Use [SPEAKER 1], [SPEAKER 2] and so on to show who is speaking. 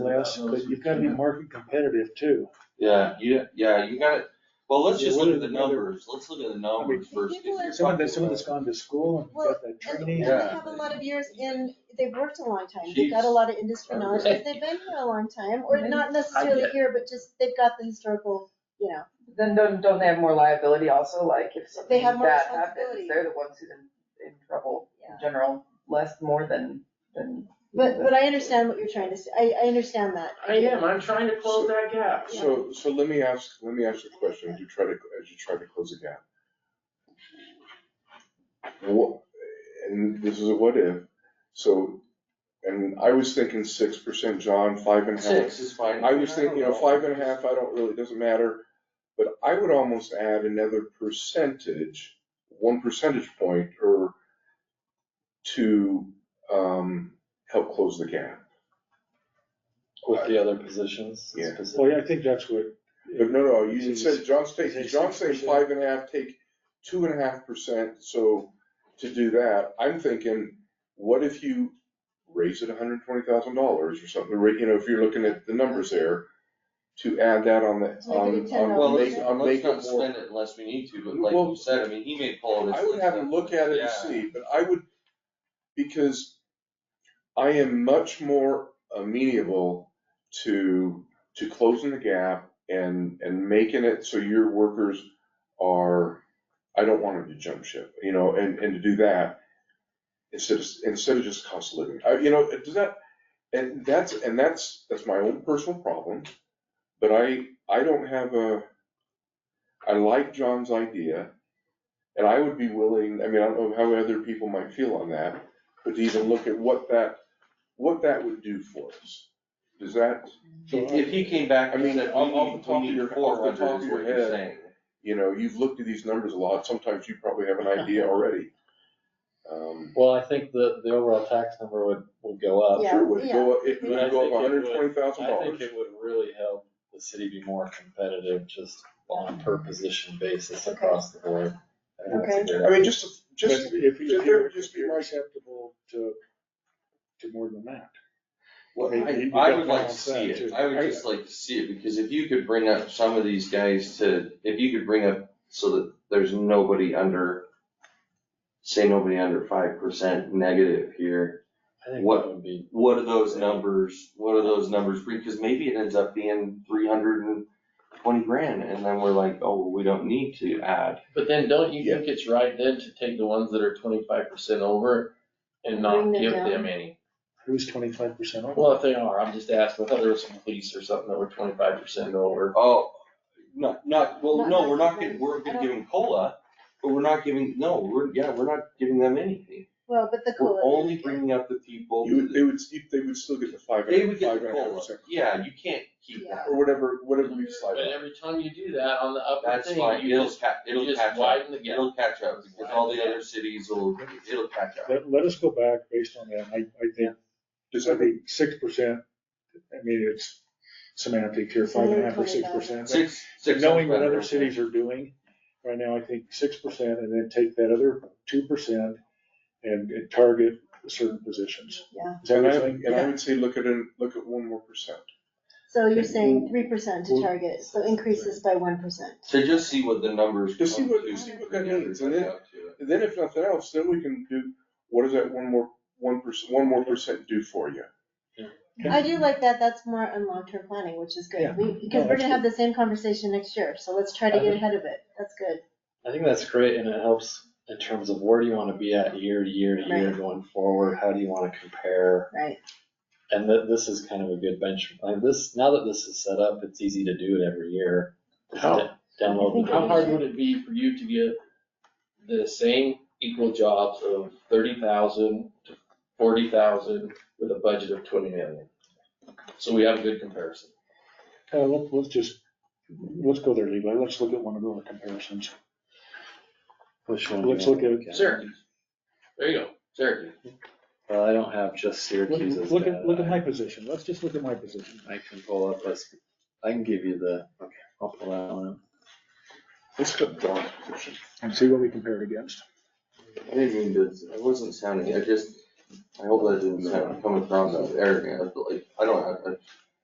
[SPEAKER 1] less, but you've gotta be market competitive too.
[SPEAKER 2] Yeah, you, yeah, you got, well, let's
[SPEAKER 1] Yeah,
[SPEAKER 2] just
[SPEAKER 1] what
[SPEAKER 2] look
[SPEAKER 1] are
[SPEAKER 2] at the
[SPEAKER 1] the other-
[SPEAKER 2] numbers, let's look at the numbers first. If you're
[SPEAKER 1] Someone that,
[SPEAKER 2] talking
[SPEAKER 1] someone that's
[SPEAKER 2] about-
[SPEAKER 1] gone to school and got that
[SPEAKER 3] And
[SPEAKER 1] training.
[SPEAKER 3] they
[SPEAKER 2] Yeah.
[SPEAKER 3] have a lot of years in, they've worked a long time, they've got a lot of industry knowledge, because they've been here a long time, or not necessarily here, but just, they've got the historical, you know.
[SPEAKER 4] Then don't, don't they have more liability also, like if
[SPEAKER 3] They
[SPEAKER 4] something
[SPEAKER 3] have
[SPEAKER 4] like
[SPEAKER 3] more
[SPEAKER 4] that happens,
[SPEAKER 3] responsibility.
[SPEAKER 4] they're the ones who's in, in trouble
[SPEAKER 3] Yeah.
[SPEAKER 4] in general, less, more than, than.
[SPEAKER 3] But, but I understand what you're trying to say, I, I understand that.
[SPEAKER 5] I am, I'm trying to close that gap.
[SPEAKER 6] So, so let me ask, let me ask you a question, as you try to, as you try to close the gap. What, and this is a what if, so, and I was thinking six percent, John, five and a half.
[SPEAKER 2] Six is fine.
[SPEAKER 6] I was thinking, you know,
[SPEAKER 2] don't
[SPEAKER 6] five and a half, I don't really, doesn't matter, but I would almost add another percentage, one percentage point or to, um, help close the gap.
[SPEAKER 7] With the other positions
[SPEAKER 6] Yeah.
[SPEAKER 7] specifically.
[SPEAKER 1] Well, Oh, yeah, I think that's what.
[SPEAKER 6] But no, no, you
[SPEAKER 1] Is it
[SPEAKER 6] said John's
[SPEAKER 1] is
[SPEAKER 6] taking,
[SPEAKER 1] it
[SPEAKER 6] John's saying
[SPEAKER 1] 6%?
[SPEAKER 6] five and a half, take two and a half percent, so to do that, I'm thinking, what if you raise it hundred and twenty thousand dollars or something, right, you know, if you're looking at the numbers there, to add that on the,
[SPEAKER 3] Let's make it a
[SPEAKER 6] on,
[SPEAKER 3] ten
[SPEAKER 6] on,
[SPEAKER 2] Well,
[SPEAKER 3] dollar
[SPEAKER 2] let's,
[SPEAKER 6] make, on
[SPEAKER 2] let's
[SPEAKER 6] make
[SPEAKER 2] not
[SPEAKER 6] it more.
[SPEAKER 2] spend it unless we need to, but like
[SPEAKER 6] Well,
[SPEAKER 2] you said, I mean, he may pull it.
[SPEAKER 6] I would have to look at it and see, but I would, because I am much more amenable to, to closing the gap and, and making it so your workers are, I don't want them to jump ship, you know, and, and to do that instead of, instead of just cost of living. Uh, you know, does that, and that's, and that's, that's my own personal problem. But I, I don't have a, I like John's idea. And I would be willing, I mean, I don't know how other people might feel on that, but to even look at what that, what that would do for us. Does that,
[SPEAKER 2] If, if he came back
[SPEAKER 6] I
[SPEAKER 2] and
[SPEAKER 6] mean,
[SPEAKER 2] said, we
[SPEAKER 6] off- off the
[SPEAKER 2] need,
[SPEAKER 6] top
[SPEAKER 2] we
[SPEAKER 6] of your-
[SPEAKER 2] need
[SPEAKER 6] off the
[SPEAKER 2] four
[SPEAKER 6] top
[SPEAKER 2] hundred
[SPEAKER 6] of
[SPEAKER 2] is
[SPEAKER 6] your
[SPEAKER 2] what you're
[SPEAKER 6] head.
[SPEAKER 2] saying.
[SPEAKER 6] you know, you've looked at these numbers a lot, sometimes you probably have an idea already. Um,
[SPEAKER 7] Well, I think the, the overall tax number would, would go up.
[SPEAKER 3] Yeah.
[SPEAKER 6] Sure, would go, up- it would
[SPEAKER 7] I
[SPEAKER 6] go
[SPEAKER 7] think it
[SPEAKER 6] up hundred and twenty
[SPEAKER 7] would-
[SPEAKER 6] thousand
[SPEAKER 7] I think
[SPEAKER 6] dollars.
[SPEAKER 7] it would really help the city be more competitive just on a per position basis
[SPEAKER 3] Okay.
[SPEAKER 7] across the board. I think that's a good
[SPEAKER 6] I mean, just, just,
[SPEAKER 1] But if you-
[SPEAKER 6] just- there would
[SPEAKER 1] if
[SPEAKER 6] just be
[SPEAKER 1] you're
[SPEAKER 6] like-
[SPEAKER 1] acceptable to, to more than that.
[SPEAKER 2] Well,
[SPEAKER 1] You- you
[SPEAKER 2] I,
[SPEAKER 1] gotta
[SPEAKER 2] I would like to
[SPEAKER 1] balance
[SPEAKER 2] see
[SPEAKER 1] that
[SPEAKER 2] it,
[SPEAKER 1] too.
[SPEAKER 2] I would
[SPEAKER 6] I-
[SPEAKER 2] just like to see it, because if you could bring up some of these guys to, if you could bring up so that there's nobody under, say nobody under five percent negative here,
[SPEAKER 7] I think
[SPEAKER 2] What-
[SPEAKER 7] that would be,
[SPEAKER 2] what are those numbers, what are those numbers, because maybe it ends up being three hundred and twenty grand, and then we're like, oh, we don't need to add.
[SPEAKER 5] But then don't
[SPEAKER 6] you
[SPEAKER 5] think it's right then to take the ones that are twenty-five percent over and
[SPEAKER 3] not Bring them give down. them
[SPEAKER 5] any?
[SPEAKER 1] Who's twenty-five percent off?
[SPEAKER 5] Well, if they are, I'm just asking, I thought there was some police or something that were twenty-five percent over.
[SPEAKER 2] Oh, not, not, well,
[SPEAKER 3] Not
[SPEAKER 2] no, we're not
[SPEAKER 3] necessarily.
[SPEAKER 2] gonna, we're gonna
[SPEAKER 3] I
[SPEAKER 2] give them COLA, but we're not giving, no, we're, yeah, we're not giving them anything.
[SPEAKER 3] Well, but the
[SPEAKER 2] We're
[SPEAKER 3] cool,
[SPEAKER 2] only bringing up the people.
[SPEAKER 6] you would, they would, they would still get the five,
[SPEAKER 2] They would
[SPEAKER 6] and-
[SPEAKER 2] get
[SPEAKER 6] five
[SPEAKER 2] the
[SPEAKER 6] and a half
[SPEAKER 2] COLA,
[SPEAKER 6] percent.
[SPEAKER 2] yeah, you can't keep that.
[SPEAKER 6] Or whatever, whatever we
[SPEAKER 5] But
[SPEAKER 6] decide. on.
[SPEAKER 5] every time you do that on the upper
[SPEAKER 2] That's
[SPEAKER 5] thing,
[SPEAKER 2] fine,
[SPEAKER 5] you
[SPEAKER 2] it'll
[SPEAKER 5] just,
[SPEAKER 2] ca-
[SPEAKER 5] you
[SPEAKER 2] it'll
[SPEAKER 5] just
[SPEAKER 2] catch up,
[SPEAKER 5] widen the gap.
[SPEAKER 2] it'll catch up, because all the other cities will, it'll catch up.
[SPEAKER 1] Let, let us go back based on that. I, I think,
[SPEAKER 6] Does
[SPEAKER 1] I
[SPEAKER 6] that
[SPEAKER 1] think six percent, I mean, it's semantic here, five and a half or six percent.
[SPEAKER 2] Six,
[SPEAKER 1] So
[SPEAKER 2] six.
[SPEAKER 1] knowing what
[SPEAKER 2] sounds
[SPEAKER 1] other
[SPEAKER 2] better.
[SPEAKER 1] cities are doing, right now, I think six percent, and then take that other two percent and, and target certain positions.
[SPEAKER 3] yeah,
[SPEAKER 1] Is that
[SPEAKER 6] And
[SPEAKER 1] what
[SPEAKER 6] I,
[SPEAKER 1] you're saying?
[SPEAKER 6] and I would say look at it, look at one more percent.
[SPEAKER 3] so you're saying three percent to
[SPEAKER 1] Well-
[SPEAKER 3] target, so increase this by one percent.
[SPEAKER 2] So just see what the numbers.
[SPEAKER 6] Just see
[SPEAKER 2] come
[SPEAKER 6] what-
[SPEAKER 2] to,
[SPEAKER 6] see what
[SPEAKER 2] bring
[SPEAKER 6] that means, and
[SPEAKER 2] everybody up to it.
[SPEAKER 6] And then if nothing else, then we can do, what does that one more, one percent, one more percent do for you?
[SPEAKER 1] Yeah.
[SPEAKER 3] I do like that, that's more on long-term planning, which is
[SPEAKER 1] Yeah.
[SPEAKER 3] good, we, because we're
[SPEAKER 1] that's
[SPEAKER 3] gonna have the same conversation next year, so let's try to get ahead of it, that's good.
[SPEAKER 7] I think that's great and it helps in terms of where do you wanna be at year to year to year
[SPEAKER 3] Right.
[SPEAKER 7] going forward? How do you wanna compare?
[SPEAKER 3] Right.
[SPEAKER 7] And that, this is kind of a good bench, like this, now that this is set up, it's easy to do it every year. Just
[SPEAKER 5] How-
[SPEAKER 7] to Download. the-
[SPEAKER 5] How hard would it be for you to get the same equal jobs of thirty thousand to forty thousand with a budget of twenty million? So we have a good comparison.
[SPEAKER 1] Uh, let, let's just, let's go there, Levi. Let's look at one of our comparisons.
[SPEAKER 7] Which one? do you
[SPEAKER 1] Let's
[SPEAKER 7] want?
[SPEAKER 1] look at,
[SPEAKER 5] Syracuse. There you go, Syracuse.
[SPEAKER 7] Well, I don't have just Syracuse's
[SPEAKER 1] look, look
[SPEAKER 7] data.
[SPEAKER 1] at, look at my
[SPEAKER 7] I
[SPEAKER 1] position. Let's just look at my position.
[SPEAKER 7] I can pull up this, I can give you the, okay, I'll pull that one up.
[SPEAKER 6] Let's put Don's position.
[SPEAKER 1] And see what we compare it against.
[SPEAKER 2] I didn't mean to, I wasn't sounding, I just, I hope that didn't sound, come across as arrogant, but like, I don't have,